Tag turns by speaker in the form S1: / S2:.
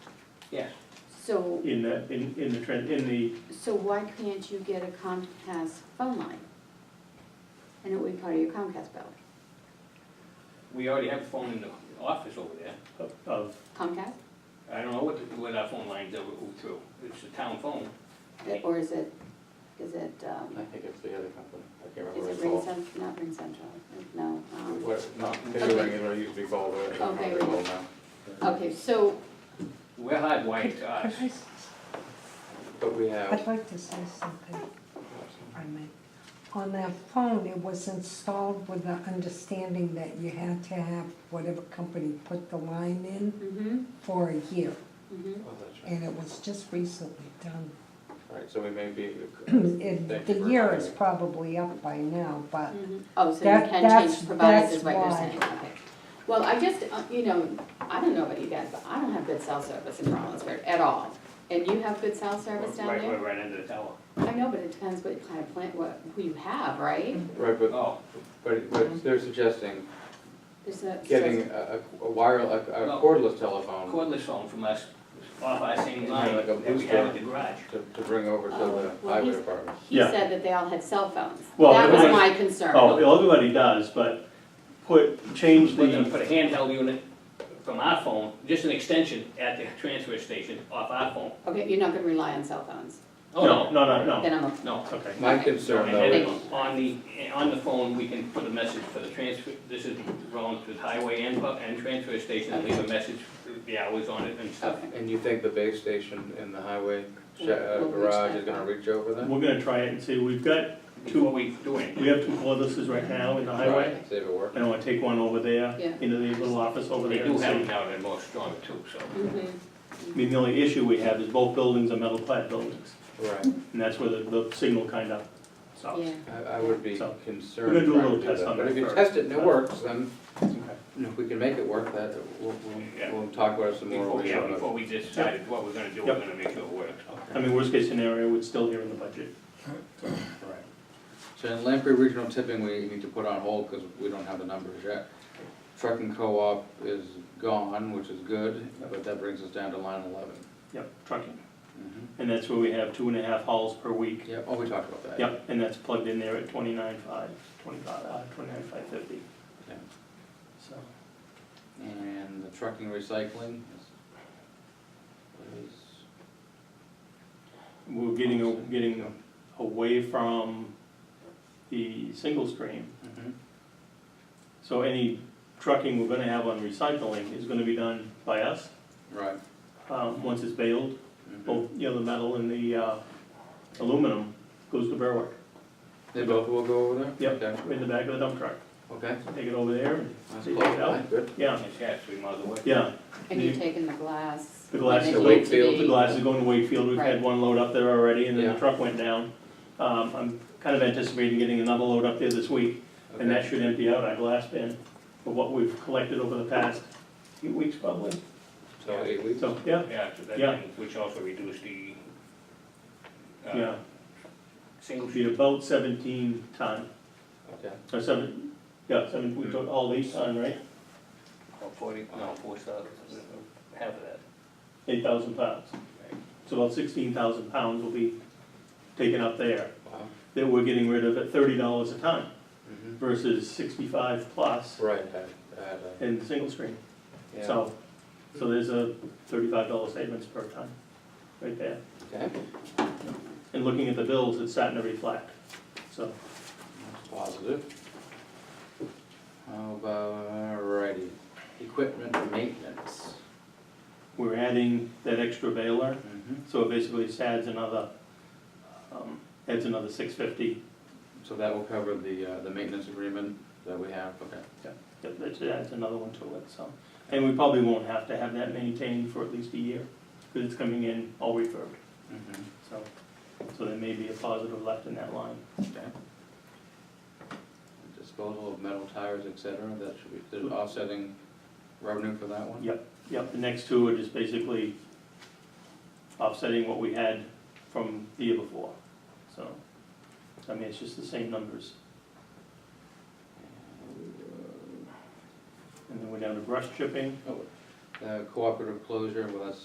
S1: Yeah.
S2: So,
S3: in the, in, in the, tran- in the,
S2: so why can't you get a Comcast phone line? And it would be part of your Comcast bill.
S1: We already have a phone in the office over there.
S3: of- of,
S2: Comcast?
S1: I don't know what, the- what our phone lines are through. It's the town phone.
S2: Or is it, is it, um,
S4: I think it's the other company, I can't remember
S2: is
S4: what
S2: it
S4: it's
S2: Ring
S4: called.
S2: Central, not Ring Central, no, um,
S4: What, no, they
S2: Okay.
S4: ring it, what it used to be called, but I don't know
S2: Okay.
S4: what it's called now.
S2: okay, so,
S1: We're hardwired to us.
S5: Could I s-
S4: But we have,
S5: I'd like to say something, if I may. On that phone, it was installed with the understanding that you had to have whatever company put the line in
S2: mhm,
S5: for a year,
S2: mhm.
S4: oh, that's right,
S5: and it was just recently done.
S4: right, so we may be.
S5: It-
S4: Thank
S5: The
S4: you for
S5: year
S4: reminding
S5: is
S4: me.
S5: probably up by now, but
S2: Mhm. Oh, so you
S5: That-
S2: can
S5: that's-
S2: change providers is
S5: that's
S2: what you're
S5: why.
S2: saying, okay. Well, I just, uh, you know, I don't know about you guys, but I don't have good cell service in Rollinsford at all. And you have good cell service down
S1: Right,
S2: there?
S1: right, right under the tower.
S2: I know, but it depends what kind of plant, what, who you have, right?
S5: Mm-hmm.
S4: Right, but,
S1: Oh,
S4: but,
S2: Mm-hmm.
S4: but they're suggesting
S2: There's a.
S4: getting a, a wireless, a
S1: No.
S4: cordless telephone
S1: cordless phone from us, off our same
S4: Yeah,
S1: line
S4: like a
S1: that we
S4: booster.
S1: have at the garage.
S4: to, to bring over to
S2: Oh,
S4: the
S2: well,
S4: highway
S2: he's-
S4: department.
S2: He
S3: Yeah.
S2: said that they all had cell phones.
S3: Well,
S2: That was
S3: everybody-
S2: my concern.
S3: oh, everybody does, but put, change
S1: We're gonna
S3: the,
S1: put a handheld unit from our phone, just an extension at the transfer station off our phone.
S2: Okay, you're not gonna rely on cell phones,
S1: Oh,
S3: no, no, no,
S2: then
S3: no,
S2: I'm,
S1: No.
S3: okay.
S4: My
S2: Okay.
S4: concern
S1: And
S4: though
S1: then
S4: is,
S1: on the, on the phone, we can put a message for the transfer, this is wrong to the highway and, bu- and transfer station, and leave a message, the hours on it and stuff.
S2: okay.
S4: and you think the base station in the highway sh- uh,
S2: Will reach
S4: garage
S2: that
S4: is gonna
S2: far.
S4: reach over them?
S3: We're gonna try it and see, we've got,
S1: Before we do
S3: we
S1: anything,
S3: have two cordlesses right now in the highway.
S4: Right, See if it works.
S3: And I wanna take one over there,
S2: Yeah.
S3: into the little office over
S1: they
S3: there
S1: do
S3: and
S1: have
S3: see.
S1: it now, they're more stronger too, so.
S2: Mhm.
S3: I mean, the only issue we have is both buildings are metal clad buildings,
S4: Right,
S3: and that's where the, the signal kind of stops.
S2: Yeah,
S4: I, I would be
S3: So,
S4: concerned.
S3: we're gonna do a
S4: trying to
S3: little test
S4: that.
S3: on
S4: But
S3: that
S4: if you
S3: first.
S4: test it and it works, then
S3: Okay.
S4: And if we can make it work, that, we'll,
S1: Yeah.
S4: we'll, we'll talk about it some more.
S1: Before we,
S4: when we
S1: yeah,
S4: have
S1: before
S4: another-
S1: we decided what we're gonna do, we're
S3: Yep.
S1: gonna make sure it works.
S3: I mean, worst case scenario, it's still here in the budget.
S4: So in Lamprey Regional Tipping, we need to put on hold because we don't have the numbers yet. Trucking Co-op is gone, which is good, but that brings us down to line eleven.
S3: Yep, trucking. And that's where we have two and a half hauls per week.
S4: Yeah, oh, we talked about that.
S3: Yep, and that's plugged in there at twenty-nine five, twenty-five, uh, twenty-nine five fifty,
S4: Yeah.
S3: so.
S4: And the trucking recycling is, what is,
S3: We're getting, a- getting away from the single stream.
S4: mhm,
S3: Mm-hmm. So any trucking we're gonna have on recycling is gonna be done by us,
S4: right.
S3: um, once it's baled.
S4: mhm.
S3: Both, you know, the metal and the, uh, aluminum goes to Berwick,
S4: They both will go over there?
S3: Yep.
S4: Okay,
S3: in the back of the dump truck.
S4: Okay,
S3: Take it over there and
S4: that's
S3: take
S4: cool,
S3: it out.
S4: Right, good.
S3: Yeah,
S1: It's yeah, three miles away.
S3: yeah.
S2: and you're
S3: You-
S2: taking the glass.
S3: The glass
S2: when
S3: to
S2: they need
S4: Wakefield,
S2: be.
S3: The glass is going to Wakefield, we've had
S2: Right.
S3: one load up there already, and then the
S4: Yeah.
S3: truck went down. Um, I'm kind of anticipating getting another load up there this week, and that
S4: Okay.
S3: should empty out our glass bin for what we've collected over the past few weeks probably.
S4: So eight weeks?
S3: So, yeah,
S1: Yeah, so that,
S3: Yeah.
S1: thing, which also reduced the, uh,
S3: yeah,
S1: single
S3: it'll be about seventeen ton,
S4: Okay.
S3: or seven, yeah, seven, we took all these ton, right?
S1: Oh, forty, no, four stars, half of that.
S3: Eight thousand pounds. So about sixteen thousand pounds will be taken up there,
S4: Wow.
S3: that we're getting rid of at thirty dollars a ton Mm-hmm.
S4: Mhm.
S3: versus sixty-five plus
S4: Right, I, I had a-
S3: in the single stream.
S4: Yeah.
S3: So, so there's a thirty-five dollar savings per ton, right there.
S4: Okay,
S3: And looking at the bills, it's starting to reflect, so.
S4: that's positive. How about, alrighty, equipment maintenance.
S3: We're adding that extra baler,
S4: Mhm.
S3: so it basically just adds another, um, adds another six fifty.
S4: So that will cover the, uh, the maintenance agreement that we have, okay.
S3: That, that adds another one to it, so. And we probably won't have to have that maintained for at least a year, because it's coming in all refurbed,
S4: Mhm.
S3: so. So there may be a positive left in that line.
S4: Okay. Disposal of metal tires, et cetera, that should be, there's offsetting revenue for that one?
S3: Yep. Yep, the next two are just basically offsetting what we had from the year before. So, I mean, it's just the same numbers. And then we're down to brush chipping.
S4: Uh, cooperative closure, well, that's